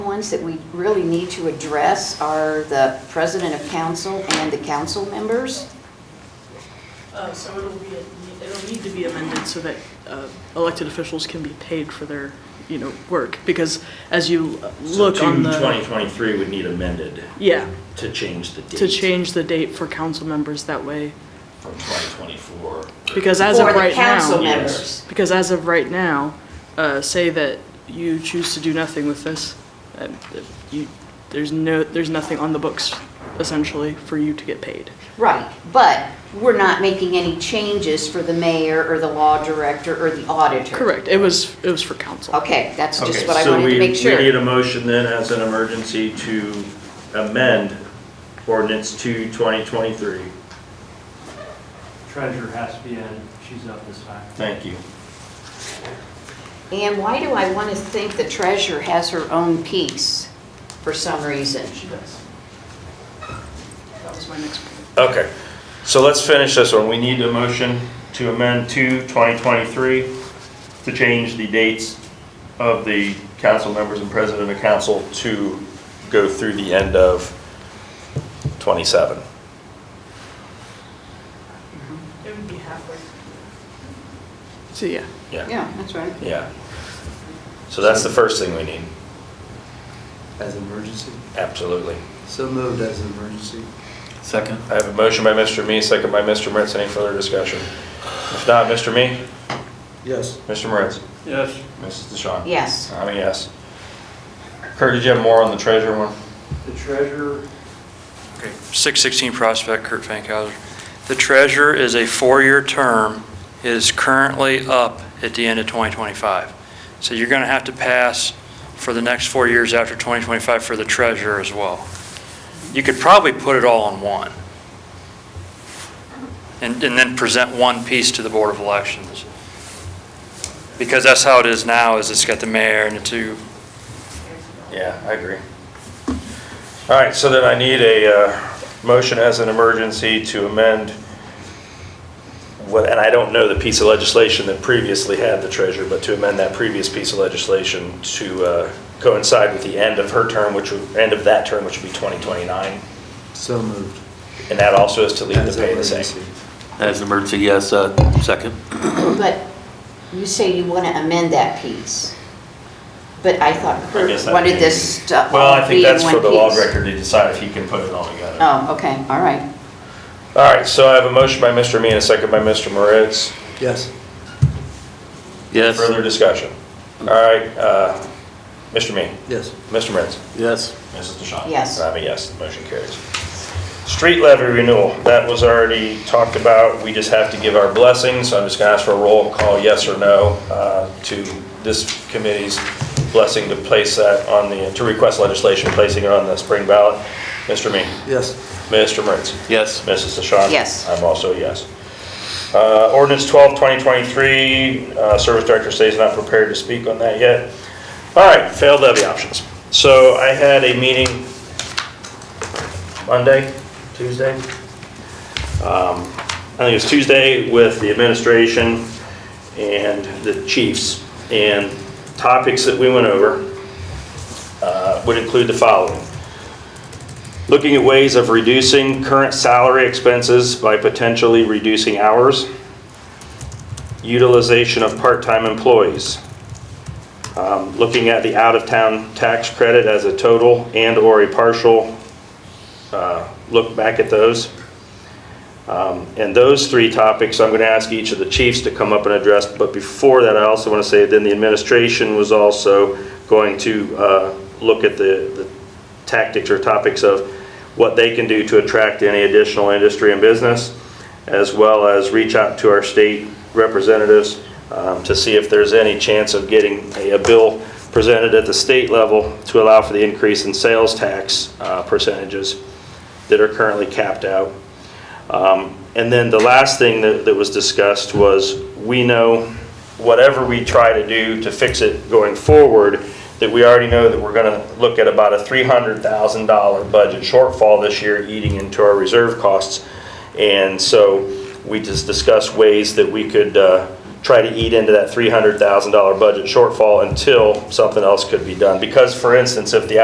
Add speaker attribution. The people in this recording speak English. Speaker 1: ones that we really need to address are the president of council and the council members.
Speaker 2: Uh, So it'll be, it'll need to be amended so that uh, elected officials can be paid for their, you know, work, because as you
Speaker 3: So
Speaker 2: look on
Speaker 3: two
Speaker 2: the.
Speaker 3: twenty twenty-three would need amended
Speaker 2: Yeah,
Speaker 3: to change the date.
Speaker 2: to change the date for council members that way,
Speaker 3: From twenty twenty-four.
Speaker 2: because as of
Speaker 1: For
Speaker 2: right
Speaker 1: the council
Speaker 2: now.
Speaker 1: members.
Speaker 2: Because as of right now, uh, say that you choose to do nothing with this, and that you, there's no, there's nothing on the books essentially for you to get paid.
Speaker 1: Right, but we're not making any changes for the mayor or the law director or the auditor.
Speaker 2: Correct, it was, it was for council.
Speaker 1: Okay, that's just
Speaker 3: Okay,
Speaker 1: what I
Speaker 3: so
Speaker 1: wanted
Speaker 3: we-
Speaker 1: to make sure.
Speaker 3: We need a motion then as an emergency to amend ordinance two twenty twenty-three.
Speaker 4: Treasurer has to be in, she's up this time.
Speaker 3: Thank you.
Speaker 1: And why do I want to think the treasurer has her own piece for some reason?
Speaker 2: She does. That was my next point.
Speaker 3: Okay, so let's finish this one. We need a motion to amend two twenty twenty-three to change the dates of the council members and president of council to go through the end of twenty-seven.
Speaker 2: It would be halfway. So, yeah.
Speaker 1: Yeah, that's right.
Speaker 3: Yeah. So that's the first thing we need,
Speaker 5: As an emergency?
Speaker 3: absolutely.
Speaker 5: So moved as an emergency.
Speaker 6: Second.
Speaker 3: I have a motion by Mr. Me, second by Mr. Moritz. Any further discussion? If not, Mr. Me,
Speaker 5: Yes.
Speaker 3: Mr. Moritz,
Speaker 4: Yes.
Speaker 3: Mrs. DeShawn.
Speaker 1: Yes.
Speaker 3: I'm a yes. Kurt, did you have more on the treasure one?
Speaker 4: The treasurer,
Speaker 7: Okay, 616 Prospect, Kurt Fankhauser. The treasurer is a four-year term, It is currently up at the end of 2025. So you're going to have to pass for the next four years after 2025 for the treasurer as well. You could probably put it all in one, and and then present one piece to the Board of Elections. Because that's how it is now, is it's got the mayor and the two
Speaker 3: Yeah, I agree. All right, so then I need a uh, motion as an emergency to amend, what- and I don't know the piece of legislation that previously had the treasurer, but to amend that previous piece of legislation to uh, coincide with the end of her term, which would, end of that term, which would be 2029,
Speaker 5: So moved.
Speaker 3: and that also is to leave the
Speaker 5: As an
Speaker 3: pay the same.
Speaker 5: emergency.
Speaker 6: As an emergency, yes, uh, second.
Speaker 1: But you say you want to amend that piece. But I thought
Speaker 3: I guess
Speaker 1: Kurt
Speaker 3: that
Speaker 1: wanted
Speaker 3: means-
Speaker 1: this to
Speaker 3: Well, I
Speaker 1: all
Speaker 3: think
Speaker 1: be in
Speaker 3: that's for
Speaker 1: one
Speaker 3: the law
Speaker 1: piece.
Speaker 3: record to decide if he can put it all together.
Speaker 1: Oh, okay, all right.
Speaker 3: All right, so I have a motion by Mr. Me and a second by Mr. Moritz.
Speaker 5: Yes.
Speaker 6: Yes.
Speaker 3: Further discussion? All right, uh, Mr. Me,
Speaker 5: Yes.
Speaker 3: Mr. Moritz.
Speaker 6: Yes.
Speaker 3: Mrs. DeShawn?
Speaker 1: Yes.
Speaker 3: And I'm a yes, the motion carries. Street levy renewal, that was already talked about. We just have to give our blessing, so I'm just gonna ask for a roll call, yes or no, uh, to this committee's blessing to place that on the, to request legislation placing it on the spring ballot. Mr. Me,
Speaker 5: Yes.
Speaker 3: Mr. Moritz.
Speaker 6: Yes.
Speaker 3: Mrs. DeShawn?
Speaker 1: Yes.
Speaker 3: I'm also a yes. Uh, Ordinance 12, 2023, uh, Service Director says not prepared to speak on that yet. All right, failed levy options. So I had a meeting Monday, Tuesday? Um, I think it was Tuesday with the administration and the chiefs. And topics that we went over uh, would include the following looking at ways of reducing current salary expenses by potentially reducing hours, utilization of part-time employees, um, looking at the out-of-town tax credit as a total and/or a partial, uh, look back at those. Um, And those three topics, I'm going to ask each of the chiefs to come up and address, but before that, I also want to say then the administration was also going to uh, look at the the tactics or topics of what they can do to attract any additional industry and business, as well as reach out to our state representatives um, to see if there's any chance of getting a a bill presented at the state level to allow for the increase in sales tax uh, percentages that are currently capped out. Um, And then the last thing that, that was discussed was, we know, whatever we try to do to fix it going forward, that we already know that we're gonna look at about a $300,000 budget shortfall this year eating into our reserve costs. And so we just discussed ways that we could uh, try to eat into that $300,000 budget shortfall until something else could be done. Because, for instance, if the